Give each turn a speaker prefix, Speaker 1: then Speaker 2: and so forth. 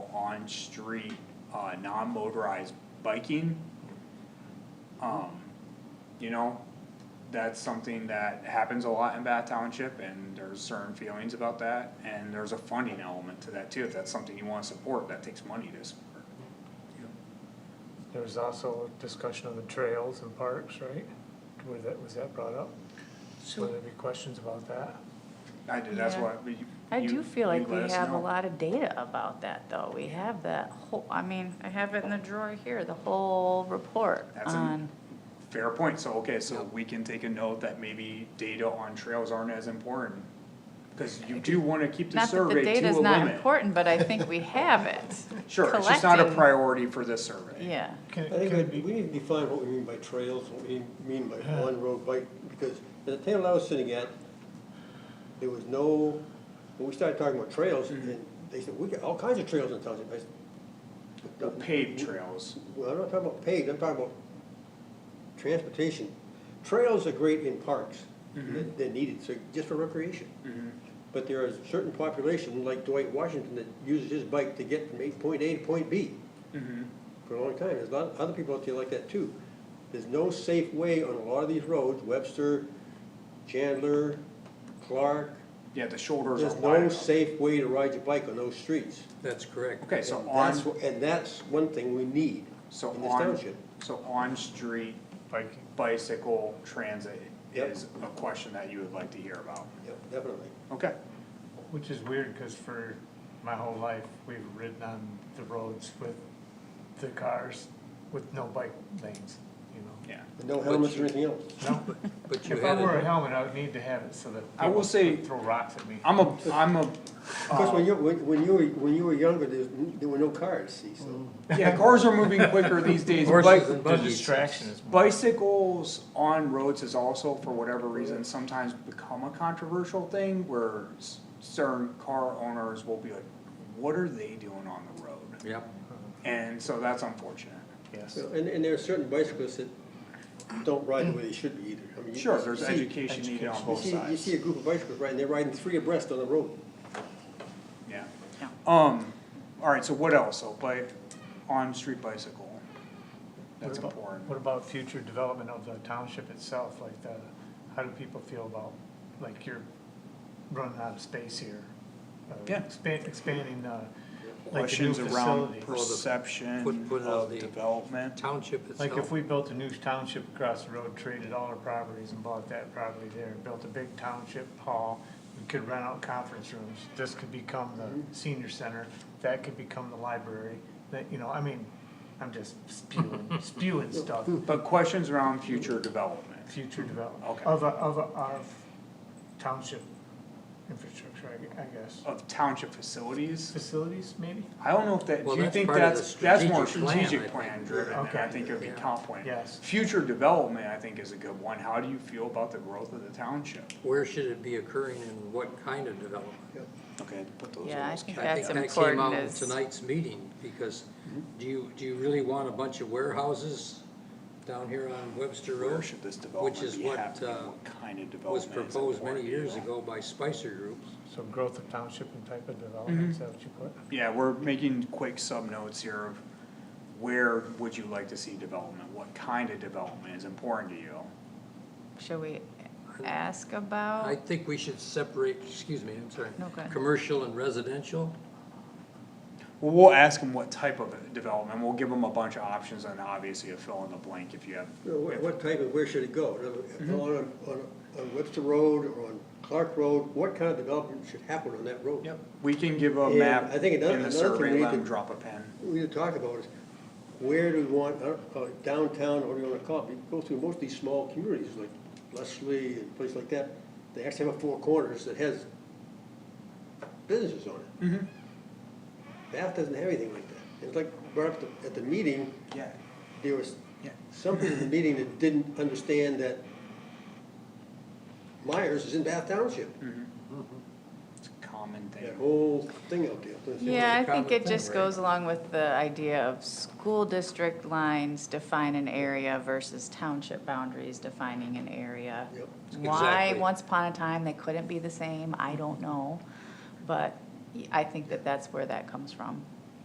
Speaker 1: on-street, uh, non-motorized biking. Um, you know, that's something that happens a lot in Bath Township and there's certain feelings about that. And there's a funding element to that too, if that's something you wanna support, that takes money to support.
Speaker 2: There was also a discussion on the trails and parks, right? Were that, was that brought up? Were there
Speaker 3: So,
Speaker 2: any questions about that?
Speaker 1: I do, that's
Speaker 4: Yeah.
Speaker 1: what, but you.
Speaker 4: I
Speaker 1: you-
Speaker 4: do feel like
Speaker 1: you let
Speaker 4: we
Speaker 1: us
Speaker 4: have a
Speaker 1: know.
Speaker 4: lot of data about that, though. We have that whole, I mean, I have it in the drawer here, the whole report
Speaker 1: That's a-
Speaker 4: on,
Speaker 1: Fair point, so, okay, so we can take a note that maybe data on trails aren't as important. Cause you do wanna keep the
Speaker 4: not that the
Speaker 1: survey to a limit.
Speaker 4: data's not important, but I think we have it.
Speaker 1: Sure, it's just not a
Speaker 4: collected.
Speaker 1: priority for this survey.
Speaker 4: Yeah,
Speaker 2: Can,
Speaker 5: I think
Speaker 2: can,
Speaker 5: I'd be- we need to define what we mean by trails, what we mean by on-road bike, because at the table I was sitting at, there was no, when we started talking about trails,
Speaker 2: Mm-hmm.
Speaker 5: and they said, we got all kinds of trails in town. I said,
Speaker 1: The paved trails,
Speaker 5: Well, I'm not talking about paved, I'm talking about transportation. Trails are great in parks,
Speaker 1: Mm-hmm.
Speaker 5: They're- they're needed, so just for recreation. But there is a certain population, like Dwight Washington, that uses his bike to get from eight point A to point B
Speaker 1: Mm-hmm.
Speaker 5: for a long time. There's a lot of other people out there like that too. There's no safe way on a lot of these roads, Webster, Chandler, Clark.
Speaker 1: yeah, the shoulders are
Speaker 5: There's
Speaker 1: wide
Speaker 5: no
Speaker 1: enough.
Speaker 5: safe way to ride your bike on those streets.
Speaker 3: that's correct.
Speaker 1: Okay, so
Speaker 5: And that's,
Speaker 1: on,
Speaker 5: wh- and that's one thing we need
Speaker 1: so
Speaker 5: in this
Speaker 1: on,
Speaker 5: township.
Speaker 1: so on-street
Speaker 2: biking,
Speaker 1: bicycle transit
Speaker 5: Yep.
Speaker 1: is a question that you would like to hear about.
Speaker 5: Yep, definitely.
Speaker 1: Okay,
Speaker 2: which is weird, cause for my whole life, we've ridden on the roads with the cars with no bike lanes, you know?
Speaker 1: yeah.
Speaker 5: And no helmets or
Speaker 3: you-
Speaker 5: anything else.
Speaker 2: No,
Speaker 3: But you
Speaker 2: if I
Speaker 3: had,
Speaker 2: wore a
Speaker 3: it-
Speaker 2: helmet, I would need to have it so that
Speaker 1: I will
Speaker 2: people
Speaker 1: say-
Speaker 2: don't throw rocks at me.
Speaker 1: I'm a, I'm a,
Speaker 5: Of course, when
Speaker 1: uh,
Speaker 5: you, when when you were, when you were younger, there's, there were no cars, see, so.
Speaker 1: yeah, cars are moving quicker these days.
Speaker 3: Horses
Speaker 1: Bike-
Speaker 3: and
Speaker 2: The
Speaker 3: buggies.
Speaker 2: distraction is more.
Speaker 1: Bicycles on roads is also, for whatever reason, sometimes become a controversial thing where s- certain car owners will be like, what are they doing on the road?
Speaker 3: yep,
Speaker 1: And so that's unfortunate.
Speaker 2: Yes.
Speaker 5: Well, And, and there are certain bicyclists that don't ride the way they should be either. I mean, you-
Speaker 1: Sure,
Speaker 5: you
Speaker 1: there's
Speaker 5: see-
Speaker 1: education needed on
Speaker 2: education.
Speaker 5: You
Speaker 1: both
Speaker 5: see, you
Speaker 1: sides.
Speaker 5: see a group of bicyclists riding, they're riding three abreast on the road.
Speaker 1: Yeah.
Speaker 4: Yeah.
Speaker 1: Um, alright, so what else? So bike, on-street bicycle. That's
Speaker 2: What about-
Speaker 1: important.
Speaker 2: What about future development of the township itself, like the, how do people feel about, like you're running out of space here? Uh,
Speaker 1: Yeah.
Speaker 2: Expand, expanding, uh, like the new
Speaker 1: Questions around
Speaker 2: facility.
Speaker 1: perception
Speaker 3: Put- put it out
Speaker 1: of
Speaker 3: the-
Speaker 1: development.
Speaker 3: township
Speaker 2: Like if
Speaker 3: itself,
Speaker 2: we built a new township across the road, traded all our properties and bought that property there, built a big township hall, we could rent out conference rooms, this could become
Speaker 1: Mm-hmm.
Speaker 2: the senior center, that could become the library, that, you know, I mean, I'm just spewing, spewing stuff.
Speaker 1: But questions around future development.
Speaker 2: future development
Speaker 1: Okay.
Speaker 2: of, a- of, a- of township infrastructure, I gue- I guess.
Speaker 1: Of township facilities?
Speaker 2: Facilities, maybe?
Speaker 1: I don't know if that,
Speaker 3: Well,
Speaker 1: do you
Speaker 3: that's
Speaker 1: think
Speaker 3: part of
Speaker 1: that's,
Speaker 3: the
Speaker 1: that's more
Speaker 3: strategic plan, I
Speaker 1: strategic
Speaker 3: think.
Speaker 1: plan driven, and I
Speaker 2: Okay.
Speaker 1: think it would be
Speaker 3: Yeah.
Speaker 1: comp plan.
Speaker 2: Yes.
Speaker 1: Future development, I think, is a good one. How do you feel about the growth of the township?
Speaker 3: where should it be occurring and what kind of development?
Speaker 1: Okay, put those
Speaker 4: yeah, I
Speaker 1: in.
Speaker 4: think
Speaker 3: I
Speaker 4: that's
Speaker 3: think that came out
Speaker 4: important
Speaker 3: of
Speaker 4: is,
Speaker 3: tonight's meeting, because do you, do you really want a bunch of warehouses down here on Webster
Speaker 1: Where
Speaker 3: Road?
Speaker 1: should this
Speaker 3: Which
Speaker 1: development
Speaker 3: is
Speaker 1: be
Speaker 3: what,
Speaker 1: happening?
Speaker 3: uh,
Speaker 1: What kind of
Speaker 3: was
Speaker 1: development is
Speaker 3: proposed many
Speaker 1: important,
Speaker 3: years
Speaker 1: you know?
Speaker 3: ago by Spicer Group.
Speaker 2: So growth of township and type of development, is that what you put?
Speaker 1: Yeah, we're making quick sub-notes here of where would you like to see development? What kind of development is important to you?
Speaker 4: should we ask
Speaker 3: I
Speaker 4: about?
Speaker 3: think we should separate, excuse me, I'm sorry.
Speaker 4: Oh. No, go ahead.
Speaker 3: Commercial and residential,
Speaker 1: Well, we'll ask them what type of development. We'll give them a bunch of options and obviously a fill in the blank if you have
Speaker 5: You know, What, what type of, where should it go? In other words, On, on, on Webster Road or on Clark Road, what kind of development should happen on that road?
Speaker 1: Yep, we can give a
Speaker 5: And
Speaker 1: map
Speaker 5: I think another-
Speaker 1: in the
Speaker 5: another thing we
Speaker 1: survey,
Speaker 5: need
Speaker 1: let
Speaker 5: to-
Speaker 1: them drop a pen.
Speaker 5: We need to talk about is, where do we want, I don't know, downtown, or do you wanna call it, we go through most of these small communities, like Leslie and places like that, they actually have a four corners that has businesses on it. Bath doesn't have anything like that. It's like, brought up the- at the meeting,
Speaker 1: Yeah,
Speaker 5: there was
Speaker 1: yeah.
Speaker 5: something in the meeting that didn't understand that Myers is in Bath Township,
Speaker 1: It's a common
Speaker 5: that
Speaker 1: thing.
Speaker 5: whole thing out there.
Speaker 4: Yeah, I think
Speaker 3: common
Speaker 4: it
Speaker 3: thing,
Speaker 4: just
Speaker 3: right?
Speaker 4: goes along with the idea of school district lines define an area versus township boundaries defining an area.
Speaker 5: Yep.
Speaker 4: Why,
Speaker 3: Exactly.
Speaker 4: once upon a time, they couldn't be the same, I don't know, but I think that that's where that comes from.